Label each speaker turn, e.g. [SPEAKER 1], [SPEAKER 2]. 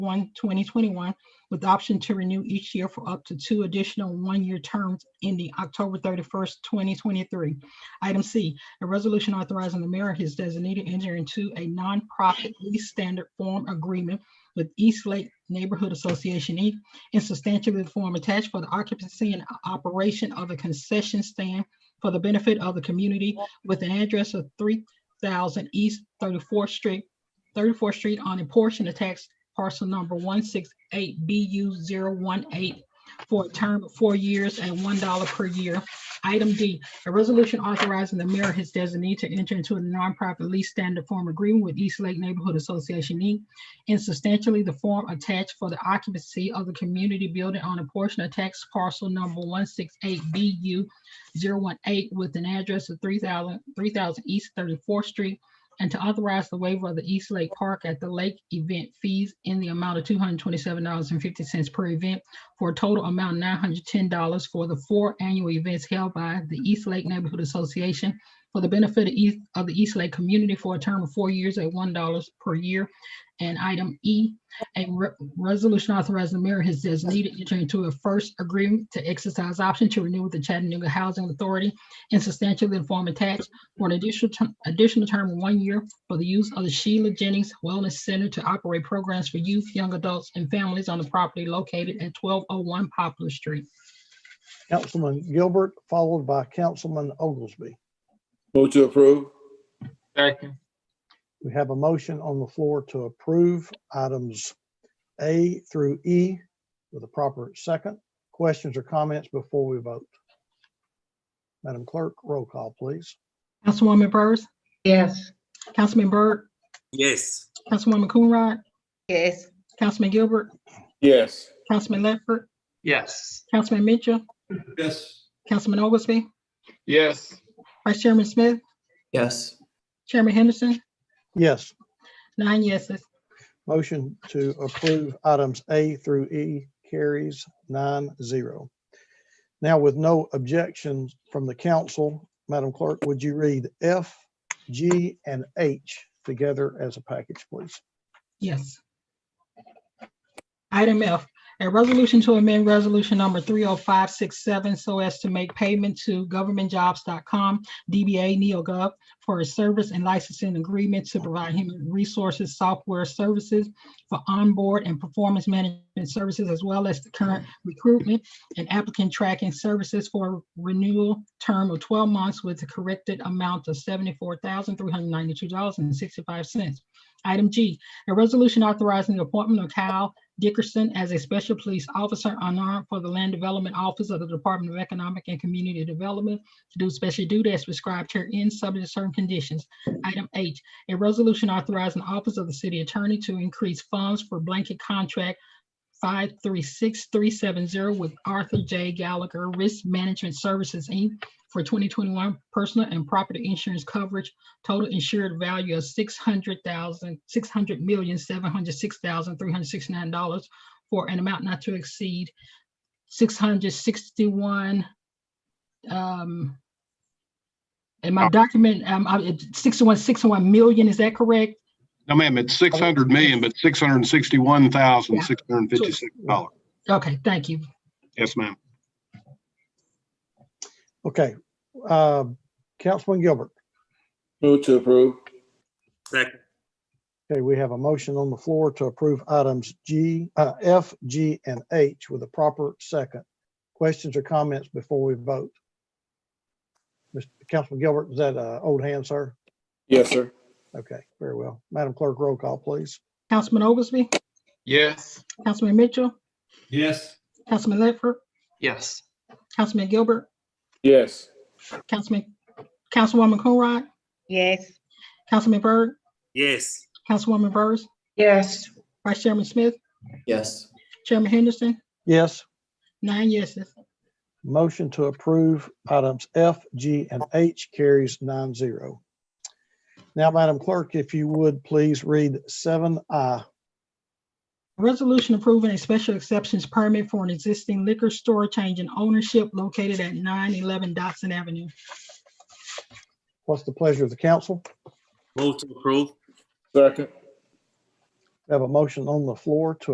[SPEAKER 1] 2021, with the option to renew each year for up to two additional one-year terms ending October 31st, 2023. Item C, a resolution authorizing the mayor and his designated enter into a nonprofit lease standard form agreement with East Lake Neighborhood Association, Inc., in substantially the form attached for the occupancy and operation of a concession stand for the benefit of the community with an address of 3,000 East 34th Street, 34th Street on a portion of tax parcel number 168BU018 for a term of four years and $1 per year. Item D, a resolution authorizing the mayor, his designee, to enter into a nonprofit lease standard form agreement with East Lake Neighborhood Association, Inc., in substantially the form attached for the occupancy of the community building on a portion of tax parcel number 168BU018 with an address of 3,000 3,000 East 34th Street and to authorize the waiver of the East Lake Park at the Lake event fees in the amount of two hundred twenty-seven dollars and fifty cents per event for a total amount nine hundred ten dollars for the four annual events held by the East Lake Neighborhood Association for the benefit of East, of the East Lake community for a term of four years at one dollars per year. And item E, a re- resolution authorizing the mayor has designated enter into a first agreement to exercise option to renew with the Chattanooga Housing Authority and substantially inform attached for an additional, term- additional term of one year for the use of the Sheila Jennings Wellness Center to operate programs for youth, young adults, and families on the property located at twelve oh one Poplar Street.
[SPEAKER 2] Councilman Gilbert, followed by Councilman Oglesby.
[SPEAKER 3] Move to approve.
[SPEAKER 4] Second.
[SPEAKER 2] We have a motion on the floor to approve items A through E with a proper second. Questions or comments before we vote? Madam Clerk, roll call, please.
[SPEAKER 1] Councilwoman Burrs,
[SPEAKER 5] Yes.
[SPEAKER 1] Councilman Byrd,
[SPEAKER 4] Yes.
[SPEAKER 1] Councilwoman Coonrod,
[SPEAKER 5] Yes.
[SPEAKER 1] Councilman Gilbert,
[SPEAKER 3] Yes.
[SPEAKER 1] Councilman Ledford,
[SPEAKER 4] Yes.
[SPEAKER 1] Councilman Mitchell,
[SPEAKER 3] Yes.
[SPEAKER 1] Councilman Oglesby,
[SPEAKER 4] Yes.
[SPEAKER 1] Vice Chairman Smith,
[SPEAKER 6] yes,
[SPEAKER 1] Chairman Henderson,
[SPEAKER 2] Yes,
[SPEAKER 1] nine yeses.
[SPEAKER 2] motion to approve items A through E carries nine zero. Now with no objections from the council, Madam Clerk, would you read F, G, and H together as a package, please?
[SPEAKER 1] Yes. Item F, a resolution to amend resolution number three oh five six seven so as to make payment to governmentjobs.com, DBA NeoGov for a service and licensing agreement to provide human resources software services for onboard and performance management services as well as the current recruitment and applicant tracking services for renewal term of twelve months with a corrected amount of seventy-four thousand three hundred ninety-two dollars and sixty-five cents. Item G, a resolution authorizing the appointment of Kyle Dickerson as a special police officer unarmed for the Land Development Office of the Department of Economic and Community Development to do special duty as prescribed herein, subject to certain conditions. Item H, a resolution authorizing the Office of the City Attorney to increase funds for blanket contract five three six three seven zero with Arthur J. Gallagher Risk Management Services, Inc. for twenty twenty-one personal and property insurance coverage total insured value of six hundred thousand, six hundred million, seven hundred six thousand, three hundred sixty-nine dollars for an amount not to exceed six hundred sixty-one. Um, and my document, um, I- sixty-one, sixty-one million, is that correct?
[SPEAKER 7] No, ma'am, it's six hundred million, but six hundred and sixty-one thousand, six hundred and fifty-six dollars.
[SPEAKER 1] Okay, thank you.
[SPEAKER 7] Yes, ma'am.
[SPEAKER 2] Okay, uh, Councilman Gilbert.
[SPEAKER 3] Move to approve.
[SPEAKER 4] Second.
[SPEAKER 2] Okay, we have a motion on the floor to approve items G, uh, F, G, and H with a proper second. Questions or comments before we vote? Mr. Councilman Gilbert, is that, uh, old hand, sir?
[SPEAKER 3] Yes, sir.
[SPEAKER 2] Okay, very well. Madam Clerk, roll call, please.
[SPEAKER 1] Councilman Oglesby,
[SPEAKER 4] Yes.
[SPEAKER 1] Councilman Mitchell,
[SPEAKER 3] Yes.
[SPEAKER 1] Councilman Ledford,
[SPEAKER 4] Yes.
[SPEAKER 1] Councilman Gilbert,
[SPEAKER 3] Yes.
[SPEAKER 1] Councilman, Councilwoman Coonrod,
[SPEAKER 5] Yes.
[SPEAKER 1] Councilman Byrd,
[SPEAKER 4] Yes.
[SPEAKER 1] Councilwoman Burrs,
[SPEAKER 5] Yes.
[SPEAKER 1] Vice Chairman Smith,
[SPEAKER 6] yes,
[SPEAKER 1] Chairman Henderson,
[SPEAKER 2] Yes,
[SPEAKER 1] Nine yeses.
[SPEAKER 2] motion to approve items F, G, and H carries nine zero. Now, Madam Clerk, if you would, please read seven I.
[SPEAKER 1] Resolution approving a special exceptions permit for an existing liquor store change in ownership located at nine eleven Dotson Avenue.
[SPEAKER 2] What's the pleasure of the council?
[SPEAKER 4] Move to approve.
[SPEAKER 3] Second.
[SPEAKER 2] We Have a motion on the floor to